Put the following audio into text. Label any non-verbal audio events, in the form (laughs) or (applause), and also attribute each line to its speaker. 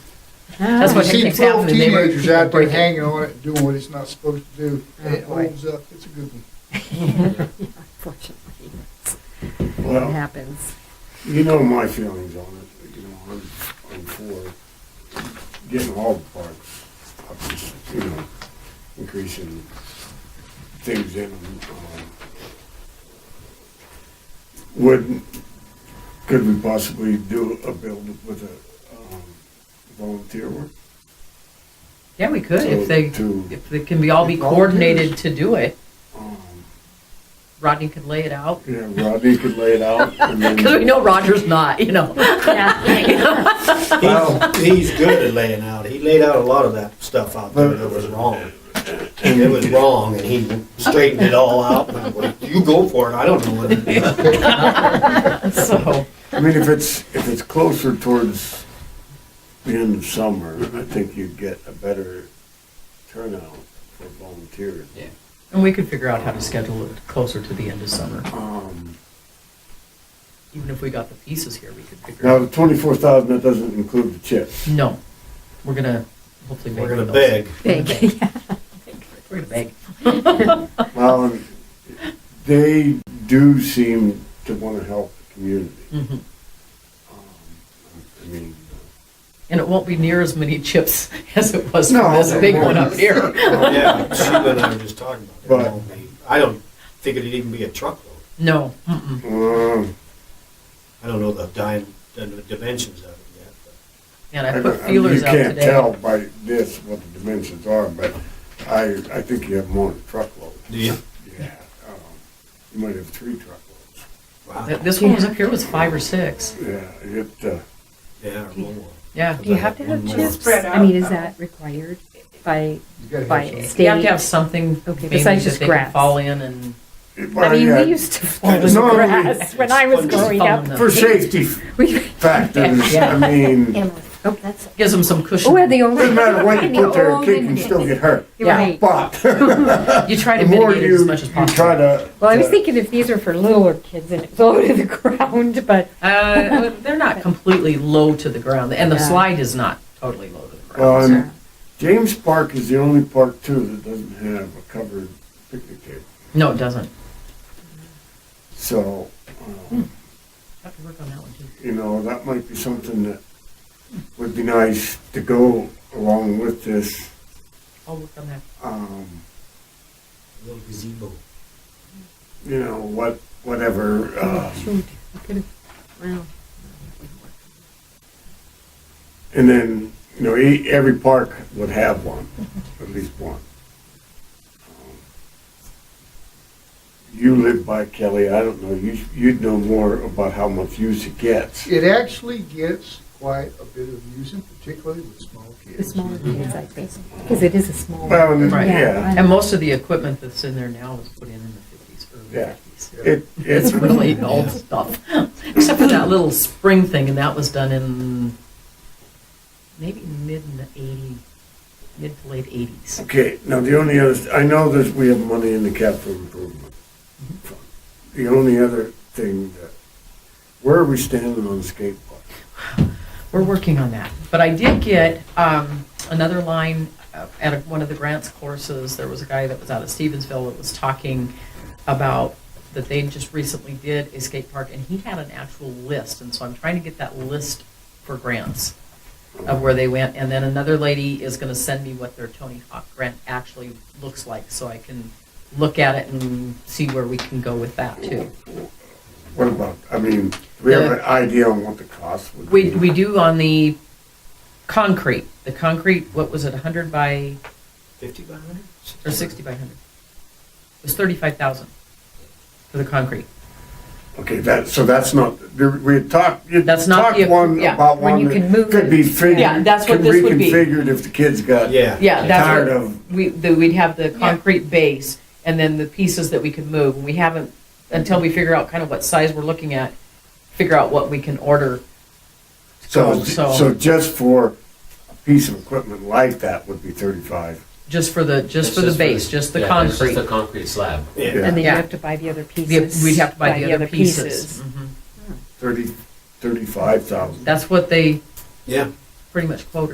Speaker 1: That's what
Speaker 2: You
Speaker 1: keeps
Speaker 2: see twelve
Speaker 1: happening. They were-
Speaker 2: Oh. teenagers out there
Speaker 1: breaking.
Speaker 2: hanging on it, doing what it's not supposed to do, and it
Speaker 1: Right.
Speaker 2: holds up, it's a good one.
Speaker 1: Unfortunately, it
Speaker 3: (laughs)
Speaker 4: Well,
Speaker 1: happens.
Speaker 4: you know my feelings on it, you know, I'm, I'm for getting all the parks up, you know, increasing things in, um, would, could we possibly do a build with a, um, volunteer work?
Speaker 1: Yeah, we could if
Speaker 4: So
Speaker 1: they,
Speaker 4: to-
Speaker 1: if they can be, all be coordinated to do it.
Speaker 4: Um,
Speaker 1: Rodney can lay it out. (laughs)
Speaker 4: Yeah, Rodney could lay it out, and then.
Speaker 1: Because we know Roger's not, you know.
Speaker 3: (laughs)
Speaker 5: He's, he's good at laying out. He laid out a lot of that stuff out there that was wrong. It was wrong, and he straightened it all out. and went, You go for it. I don't know what to do.
Speaker 1: So,
Speaker 4: I mean, if it's, if it's closer towards the end of summer, I think you'd get a better turnout for volunteers.
Speaker 1: Yeah. (laughs) and we could figure out how to schedule it closer to the end of summer.
Speaker 4: Um,
Speaker 1: Even if we got the pieces here, we could figure
Speaker 4: Now,
Speaker 1: out.
Speaker 4: the twenty-four thousand, that doesn't include the chips.
Speaker 1: No, we're gonna hopefully make.
Speaker 5: We're gonna
Speaker 1: those.
Speaker 5: beg.
Speaker 3: Big, (laughs) yeah.
Speaker 1: We're gonna beg.
Speaker 4: Well, and they do seem to want to help the community.
Speaker 1: Mhm.
Speaker 4: Um, I mean,
Speaker 1: And it won't be near as many chips (laughs) as it was
Speaker 4: No,
Speaker 1: from this big
Speaker 4: it
Speaker 1: one up
Speaker 4: won't.
Speaker 1: here. (laughs)
Speaker 5: Yeah, she and I were just talking about it.
Speaker 4: But-
Speaker 5: It won't be- I don't think it'd even be a truckload.
Speaker 1: No, mm-mm.
Speaker 4: um,
Speaker 5: I don't know the di- the dimensions of it yet. but
Speaker 1: and
Speaker 4: I
Speaker 1: I
Speaker 4: don't-
Speaker 1: put
Speaker 4: I mean,
Speaker 1: feelers out
Speaker 4: You can't tell
Speaker 1: today.
Speaker 4: by this what the dimensions are, but I, I think you have more than a truckload.
Speaker 5: Do you?
Speaker 4: Yeah, um, you might have three truckloads.
Speaker 5: Wow.
Speaker 1: Th- This one was up here was five or six.
Speaker 4: Yeah, it, uh,
Speaker 5: Yeah, or more.
Speaker 1: Yeah.
Speaker 3: Do you have to have
Speaker 5: One more.
Speaker 3: chips?
Speaker 6: Spread
Speaker 3: I mean, is
Speaker 6: out.
Speaker 3: that required by,
Speaker 2: You gotta have
Speaker 3: by
Speaker 2: something.
Speaker 1: You have to have
Speaker 3: state?
Speaker 1: something
Speaker 3: Okay,
Speaker 1: maybe
Speaker 3: besides
Speaker 1: that
Speaker 3: just
Speaker 1: they can
Speaker 3: grass.
Speaker 1: fall in and,
Speaker 4: it-
Speaker 3: I
Speaker 4: well,
Speaker 3: mean,
Speaker 4: yeah,
Speaker 3: we used to fall in
Speaker 4: No, we-
Speaker 3: grass when I was
Speaker 5: Just
Speaker 3: growing
Speaker 1: fall in
Speaker 3: up.
Speaker 1: the-
Speaker 4: For safety
Speaker 3: We, (laughs)
Speaker 4: factors, I mean,
Speaker 3: Emily, oh, that's,
Speaker 1: gives them some cushion.
Speaker 3: we're the only.
Speaker 4: doesn't
Speaker 3: (laughs)
Speaker 4: matter what you
Speaker 3: we're the
Speaker 4: put there, a
Speaker 3: only
Speaker 4: kid can still
Speaker 3: ones.
Speaker 4: get hurt.
Speaker 1: Yeah.
Speaker 3: Right. (laughs)
Speaker 4: But
Speaker 1: (laughs) You try
Speaker 4: the
Speaker 1: to
Speaker 4: more
Speaker 1: mitigate it
Speaker 4: you,
Speaker 1: as
Speaker 4: you
Speaker 1: much as possible.
Speaker 4: try to.
Speaker 3: Well, I was
Speaker 4: to-
Speaker 3: thinking if these are for littler kids and it's low (laughs) to the ground, but
Speaker 1: Uh, they're not completely low to the ground, and the
Speaker 3: Yeah.
Speaker 1: slide is not totally low to the
Speaker 4: Well,
Speaker 1: ground.
Speaker 4: and James Park is the only park too that doesn't have a covered picnic table,
Speaker 1: No, it doesn't.
Speaker 4: so,
Speaker 3: Hmm.
Speaker 4: um,
Speaker 1: Have to work on that one too.
Speaker 4: you know, that might be something that would be nice to go along with this,
Speaker 1: I'll work on that.
Speaker 4: um,
Speaker 5: A little gazebo.
Speaker 4: you know, what, whatever, uh,
Speaker 3: shoot, I could've- wow.
Speaker 4: and then, you know, e- every park would have one,
Speaker 1: Mm-hmm.
Speaker 4: at least one. Um, You live by Kelly, I don't know, you, you'd know more about how much use it gets.
Speaker 2: It actually gets quite a bit of use, and particularly with small kids.
Speaker 3: The smaller kids, I think, because it is a small.
Speaker 4: Well, and-
Speaker 1: Right.
Speaker 4: yeah,
Speaker 1: And most of the equipment that's in there now was put in in the fifties, early
Speaker 4: Yeah.
Speaker 1: fifties.
Speaker 4: it,
Speaker 1: It's
Speaker 4: it's (laughs)
Speaker 1: really old stuff, except for that little spring thing, and that was done in maybe mid in the eighty, mid to late eighties.
Speaker 4: Okay, now the only other, I know that we have money in the capital improvement. fund. The only other thing that, where are we standing on the skate park?
Speaker 1: We're working on that. But I did get um, another line uh, at a- one of the grants courses. There was a guy that was out of Stevensville that was talking about that they just recently did a skate park, and he had an actual list. And so I'm trying to get that list for grants of where they went. And then another lady is going to send me what their Tony Hawk grant actually looks like, so I can look at it and see where we can go with that too.
Speaker 4: What about, I mean, do we have an idea on what the cost would
Speaker 1: We,
Speaker 4: be?
Speaker 1: we do on the concrete, the concrete, what was it, 100 by,
Speaker 5: Fifty by hundred?
Speaker 1: or 60 by 100? It was 35,000 for the concrete.
Speaker 4: Okay, that, so that's not, there- we had talked, you
Speaker 1: That's not
Speaker 4: talked
Speaker 1: the-
Speaker 4: one
Speaker 1: yeah,
Speaker 4: about
Speaker 3: when
Speaker 4: one
Speaker 3: you can
Speaker 4: that
Speaker 3: move
Speaker 4: could
Speaker 3: it.
Speaker 4: be figured.
Speaker 1: Yeah, that's what
Speaker 4: could
Speaker 1: this would be.
Speaker 4: Reconfigured if the kids got.
Speaker 5: Yeah.
Speaker 1: Yeah,
Speaker 4: Tired
Speaker 1: that's what,
Speaker 4: of-
Speaker 1: we, the- we'd have the concrete base and then the pieces that we could move. And we haven't, until we figure out kind of what size we're looking at, figure out what we can order.
Speaker 4: So,
Speaker 1: So-
Speaker 4: so just for a piece of equipment like that would be thirty-five.
Speaker 1: Just for the, just
Speaker 7: It's
Speaker 1: for the base, just the
Speaker 7: yeah, it's
Speaker 1: concrete.
Speaker 7: Just the concrete slab.
Speaker 5: Yeah.
Speaker 3: And then you
Speaker 1: Yeah.
Speaker 3: have to buy the other pieces.
Speaker 1: The- We'd have to buy the other pieces. Mhm.
Speaker 4: Thirty, thirty-five thousand.
Speaker 1: That's what they
Speaker 5: Yeah.
Speaker 1: pretty much quoted.